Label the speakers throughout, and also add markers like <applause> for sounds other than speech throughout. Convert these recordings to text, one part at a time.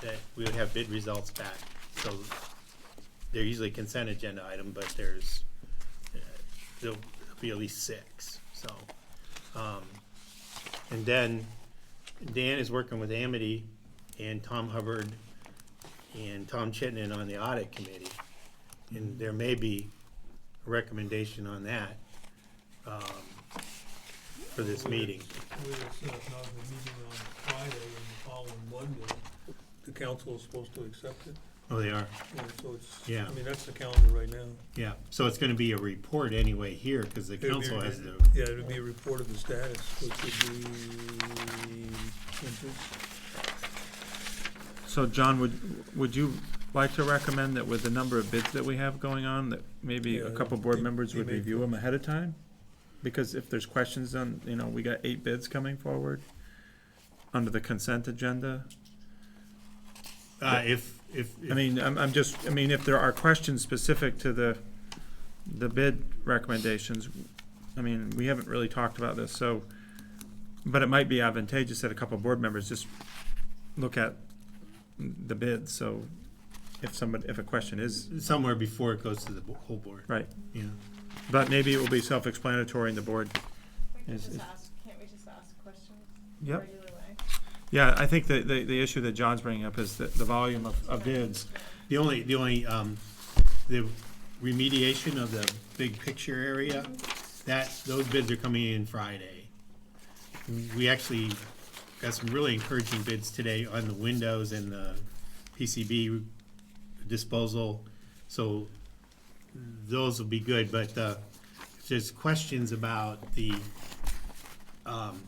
Speaker 1: that we would have bid results back. So they're usually consent agenda item, but there's, uh, there'll be at least six, so. um, And then Dan is working with Amity and Tom Hubbard and Tom Chittenden on the audit committee. And there may be a recommendation on that um, for this meeting.
Speaker 2: We will set up another meeting on Friday and the following Monday. The council is supposed to accept it,
Speaker 1: Oh, they are?
Speaker 2: and so it's,
Speaker 1: Yeah.
Speaker 2: I mean, that's the calendar right now.
Speaker 1: Yeah, so it's gonna be a report anyway here, cause the
Speaker 2: It'll be-
Speaker 1: council has the,
Speaker 2: Yeah, it would be a report of the status, which would be,
Speaker 3: So John, would, would you like to recommend that with the number of bids that we have going on, that maybe
Speaker 2: Yeah,
Speaker 3: a couple board
Speaker 2: they-
Speaker 3: members
Speaker 2: they
Speaker 3: would
Speaker 2: may
Speaker 3: review them ahead of time? Because if there's questions on, you know, we got eight bids coming forward under the consent agenda.
Speaker 1: uh, if, if.
Speaker 3: I mean, I'm, I'm just, I mean, if there are questions specific to the, the bid recommendations, I mean, we haven't really talked about this, so, but it might be advantageous that a couple of board members just look at the bid, so if somebody, if a question is,
Speaker 1: Somewhere before it goes to the bo- whole board,
Speaker 3: right,
Speaker 1: yeah.
Speaker 3: but maybe it will be self-explanatory and the board.
Speaker 4: We can
Speaker 3: Is-
Speaker 4: just
Speaker 3: is-
Speaker 4: ask, can't we just ask questions the
Speaker 3: Yep.
Speaker 4: regular way?
Speaker 3: Yeah, I think the, the, the issue that John's bringing up is the, the volume of, of bids.
Speaker 1: The only, the only, um, the remediation of the big picture area, that, those bids are coming in Friday. We actually got some really encouraging bids today on the windows and the PCB disposal, so those will be good, but, uh, if there's questions about the, um,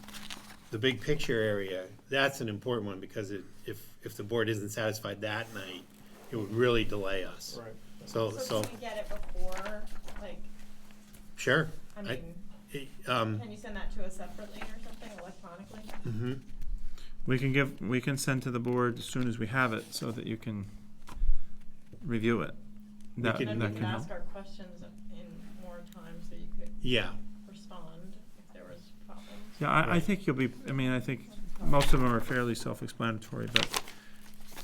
Speaker 1: the big picture area, that's an important one, because it, if, if the board isn't satisfied that night, it would really delay us.
Speaker 2: Right.
Speaker 1: So,
Speaker 4: So
Speaker 1: Oh, so,
Speaker 4: can we get it before, like,
Speaker 1: sure.
Speaker 4: I
Speaker 1: I-
Speaker 4: mean,
Speaker 1: it, Um,
Speaker 4: can you send that to us separately or something electronically?
Speaker 1: mhm.
Speaker 3: We can give, we can send to the board as soon as we have it, so that you can review it. That,
Speaker 1: could-
Speaker 4: And
Speaker 1: Yeah,
Speaker 3: that can
Speaker 4: then we could
Speaker 3: help.
Speaker 4: ask our questions in more time so you could
Speaker 1: yeah,
Speaker 4: respond if there was problems.
Speaker 3: Yeah, I, I
Speaker 1: Right.
Speaker 3: think you'll be, I mean, I think most of them are fairly self-explanatory, but,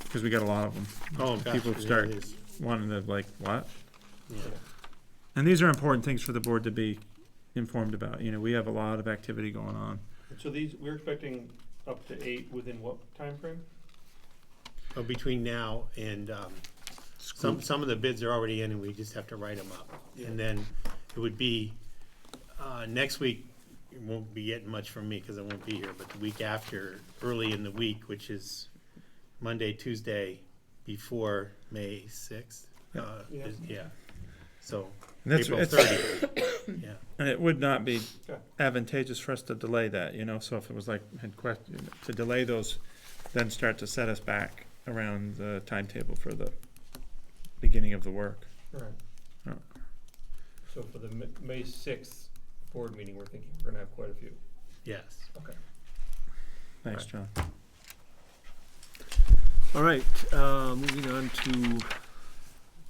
Speaker 3: because we got a lot of them.
Speaker 1: oh, gosh.
Speaker 3: People
Speaker 1: there it
Speaker 3: start
Speaker 1: is.
Speaker 3: wanting to like, what?
Speaker 1: Yeah.
Speaker 3: And these are important things for the board to be informed about, you know, we have a lot of activity going on.
Speaker 5: So these, we're expecting up to eight within what timeframe?
Speaker 1: Oh, between now and, um, some, some of the bids are already in and we just have to write them up. And then it would be, uh, next week, you won't be getting much from me because I won't be here, but the week after, early in the week, which is Monday, Tuesday, before May sixth. Uh,
Speaker 5: Yeah.
Speaker 1: is- yeah, so
Speaker 3: And that's-
Speaker 1: April
Speaker 3: it's-
Speaker 1: thirtieth, yeah.
Speaker 3: And it would not be
Speaker 5: Okay.
Speaker 3: advantageous for us to delay that, you know, so if it was like, had question, to delay those, then start to set us back around the timetable for the beginning of the work.
Speaker 5: Right.
Speaker 3: Oh.
Speaker 5: So for the Ma- May sixth board meeting, we're thinking we're gonna have quite a few.
Speaker 1: Yes.
Speaker 3: Thanks, John.
Speaker 6: All right, uh, moving on to
Speaker 2: So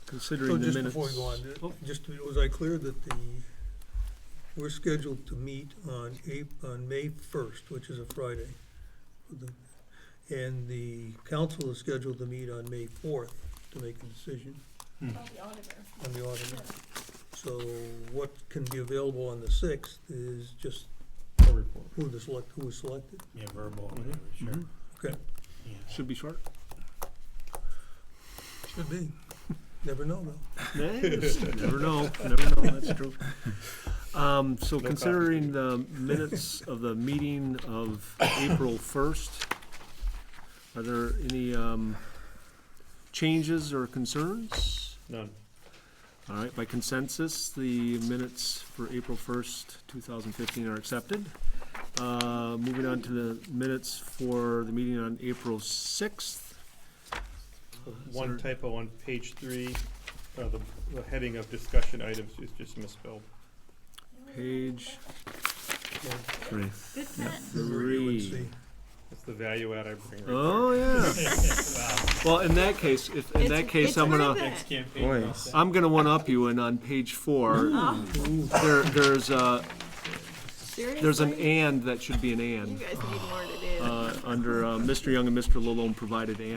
Speaker 6: considering the
Speaker 2: just
Speaker 6: minutes.
Speaker 2: before we go on, just, to- was I clear that the, we're scheduled to meet on April, on May first, which is a Friday. The- And the council is scheduled to meet on May fourth to make a decision
Speaker 4: Call
Speaker 6: Mm.
Speaker 4: the auditor.
Speaker 2: on the
Speaker 4: Yeah.
Speaker 2: auditor. So what can be available on the sixth is just
Speaker 5: report.
Speaker 2: who the select, who was selected.
Speaker 1: Yeah, verbal, whatever, sure.
Speaker 6: Mhm.
Speaker 2: Mm-hmm. Okay.
Speaker 1: Yeah.
Speaker 6: Should be short.
Speaker 2: Should be. Never know though.
Speaker 5: <laughs>
Speaker 6: Nah, just Never know, never know, that's true. Um, so
Speaker 5: copy.
Speaker 6: considering the minutes of the meeting of April first, are there any, um, changes or concerns?
Speaker 5: None.
Speaker 6: All right, by consensus, the minutes for April first, two thousand fifteen are accepted. Uh, moving on to the minutes for the meeting on April sixth.
Speaker 5: One typo on page three, uh, the, the heading of discussion items is just misspelled.
Speaker 6: Page three.
Speaker 2: Review and
Speaker 6: Three.
Speaker 2: see.
Speaker 5: That's the value add I bring right there.
Speaker 6: Oh, yeah. Well, in that case, if, in that case, I'm gonna,
Speaker 4: It's
Speaker 3: Boy,
Speaker 6: I'm gonna one-up you, and on page four,
Speaker 4: proven.
Speaker 6: there, there's a, there's an
Speaker 4: Seriously?
Speaker 6: and uh, that should be an
Speaker 4: You
Speaker 6: and.
Speaker 4: guys need more to do.
Speaker 6: Uh, under, uh, Mr. Young and Mr. Lalone provided and.